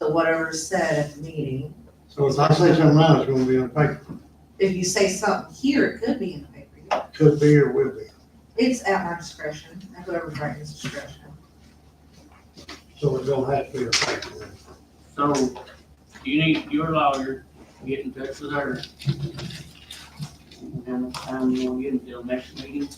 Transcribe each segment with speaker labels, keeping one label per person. Speaker 1: to whatever's said at the meeting.
Speaker 2: So if I say something wrong, it's gonna be on paper,
Speaker 1: If you say something here, it could be in the paper. yeah.
Speaker 2: could be or will be.
Speaker 1: It's at my discretion, at whoever's writing's discretion.
Speaker 2: So it don't have to be a paper. then.
Speaker 3: So you need your lawyer, to get in touch with her. And then I'm gonna get until next meeting.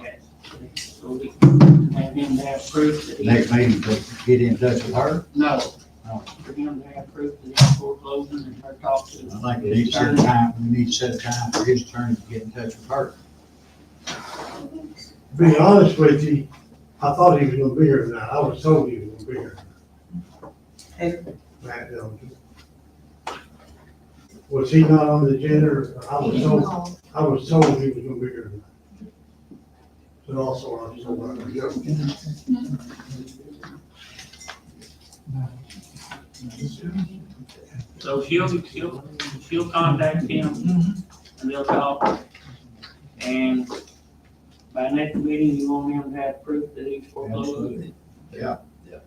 Speaker 3: yes. So we can have him to have proof that he,
Speaker 4: Next meeting, to get in touch with her.
Speaker 3: no.
Speaker 4: No.
Speaker 3: For him to have proof that he's foreclosing and her talk to him.
Speaker 4: I think we need to set a time, we need to set a time for his attorney to get in touch with her.
Speaker 2: To Be honest with you, I thought he was gonna be here tonight, I was told he was gonna be here. Matt Dillon. Was he not on the agenda, or I was told, I was told he was gonna be here tonight. But also, I was told, I was joking.
Speaker 3: So she'll, she'll, she'll contact him and they'll talk. And by next meeting, you want him to have proof that he's foreclosing.
Speaker 4: Yeah. Yeah.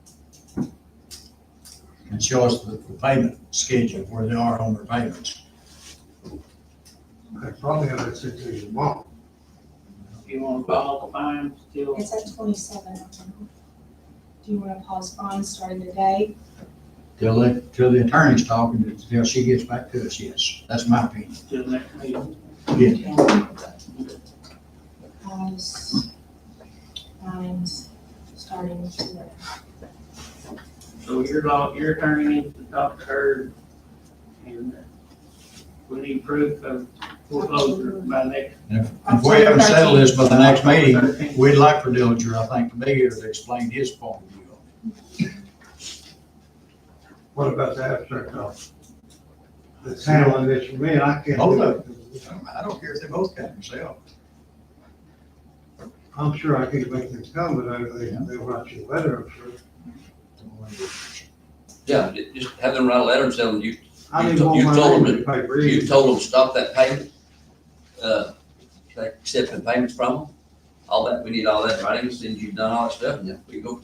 Speaker 4: And show us the the payment schedule, where they are on their payments.
Speaker 2: I probably have that situation wrong.
Speaker 3: You wanna call the fine still?
Speaker 5: It's at twenty-seven. Do you wanna pause on starting today?
Speaker 4: Till, the- till the attorney's talking, till she gets back to us, yes, that's my opinion.
Speaker 3: Till next meeting.
Speaker 4: Yeah.
Speaker 5: Pause. Times, starting today.
Speaker 3: So your law, your attorney needs to talk to her and we need proof of foreclosure by next.
Speaker 4: And if- If we haven't settled this by the next meeting, we'd like for Dillinger, I think, to be here to explain his point of view.
Speaker 2: What about the abstract office? That's handling this for me, I can't.
Speaker 4: Hold
Speaker 2: do
Speaker 4: up.
Speaker 2: it.
Speaker 4: I don't care if they both got themselves.
Speaker 2: I'm sure I could make them come, but I, they, they'll write you a letter, I'm sure.
Speaker 6: Yeah, ju- just have them write a letter and tell them you,
Speaker 2: I
Speaker 6: You
Speaker 2: didn't
Speaker 6: to-
Speaker 2: want
Speaker 6: you
Speaker 2: my
Speaker 6: told
Speaker 2: name
Speaker 6: them
Speaker 2: in the paper
Speaker 6: you
Speaker 2: either.
Speaker 6: told them stop that payment. Uh, they accept the payments from them, all that, we need all that in writing, since you've done all that stuff, and we go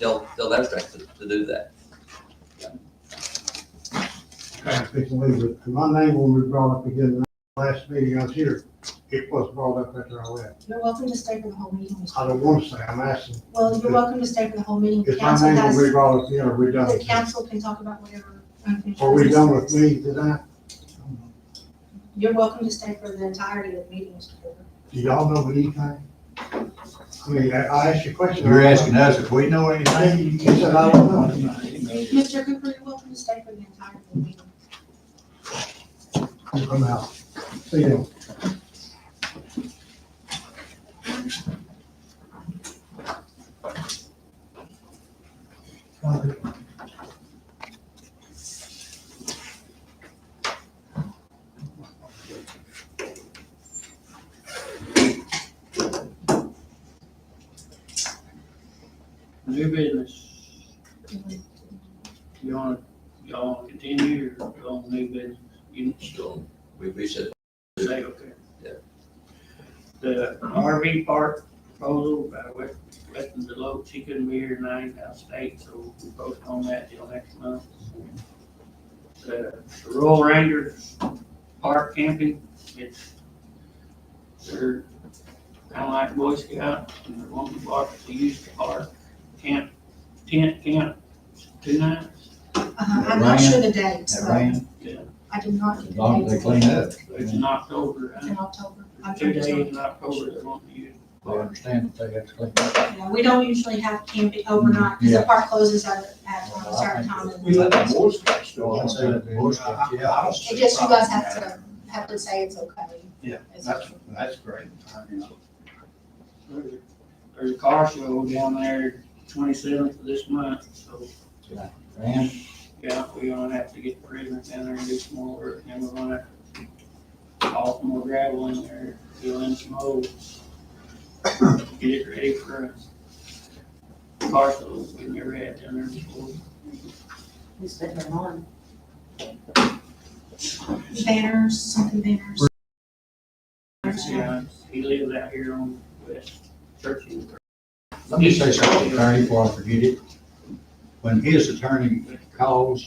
Speaker 6: tell, tell that to, to do that.
Speaker 2: I think so, but My name will be brought up again, the last meeting I was here, it was brought up after I left.
Speaker 5: You're welcome to stay for the whole meeting. Mr.
Speaker 2: I don't want to say, I'm asking,
Speaker 5: Well, you're welcome to stay for the whole meeting.
Speaker 2: if my
Speaker 5: Council
Speaker 2: name will be
Speaker 5: has,
Speaker 2: brought up, again, are we done?
Speaker 5: the council can talk about whatever. unfinished
Speaker 2: Are we done with
Speaker 5: business is.
Speaker 2: me tonight?
Speaker 5: You're welcome to stay for the entirety of the meeting, Mr. Porter.
Speaker 2: Do y'all know anything? I mean, I, I asked you a question.
Speaker 4: You're asking us if we know
Speaker 2: I-
Speaker 4: anything?
Speaker 2: You said, I don't know.
Speaker 5: Mr. Cooper, you're welcome to stay for the entirety of the meeting.
Speaker 2: I'm out. See you.
Speaker 3: New business, you wanna, y'all wanna continue or go on new business? You
Speaker 6: So we reset
Speaker 3: say, okay.
Speaker 6: Yeah.
Speaker 3: The RV park proposal by West, West Deloach, she couldn't be here tonight out of state, so we postponed that till next month. The Royal Rangers Park Camping, it's, they're kinda like Boy Scout, and they're wanting to park, they use the park, camp, tent camp, two nights.
Speaker 5: Uh-huh, I'm not sure the date,
Speaker 4: That
Speaker 5: so
Speaker 4: rain,
Speaker 5: I did not get
Speaker 4: as
Speaker 5: the
Speaker 4: long
Speaker 5: date.
Speaker 4: as they clean up,
Speaker 3: It's in October,
Speaker 5: In
Speaker 3: and
Speaker 5: October. I'm
Speaker 3: two days
Speaker 5: sorry.
Speaker 3: in October, they want to use
Speaker 4: they understand that they have to clean up.
Speaker 5: Yeah, we don't usually have camping oh, overnight, because the
Speaker 4: Yeah. Uh,
Speaker 5: park closes at, at um, a certain time.
Speaker 4: We let the
Speaker 5: and-
Speaker 4: Boy Scouts go. I said the Boy Scouts, yeah. I don't see
Speaker 5: It
Speaker 4: a
Speaker 5: just, you
Speaker 4: problem
Speaker 5: guys have
Speaker 4: with that.
Speaker 5: to, have to say it's okay.
Speaker 4: Yeah,
Speaker 5: It's-
Speaker 4: That's, that's great. I mean,
Speaker 3: There's there's a car show down there twenty-seventh of this month, so,
Speaker 4: Man,
Speaker 3: yeah, we're gonna have to get the prisoners down there and do some more work, and we're gonna haul some more gravel in there, fill in some holes, get it ready for us. Car show, we've never had down there before.
Speaker 7: Who's been there on?
Speaker 5: Banners, something banners.
Speaker 3: Yeah, he lives out here on West Churchill.
Speaker 4: let me say something, attorney, before I forget it. When his attorney calls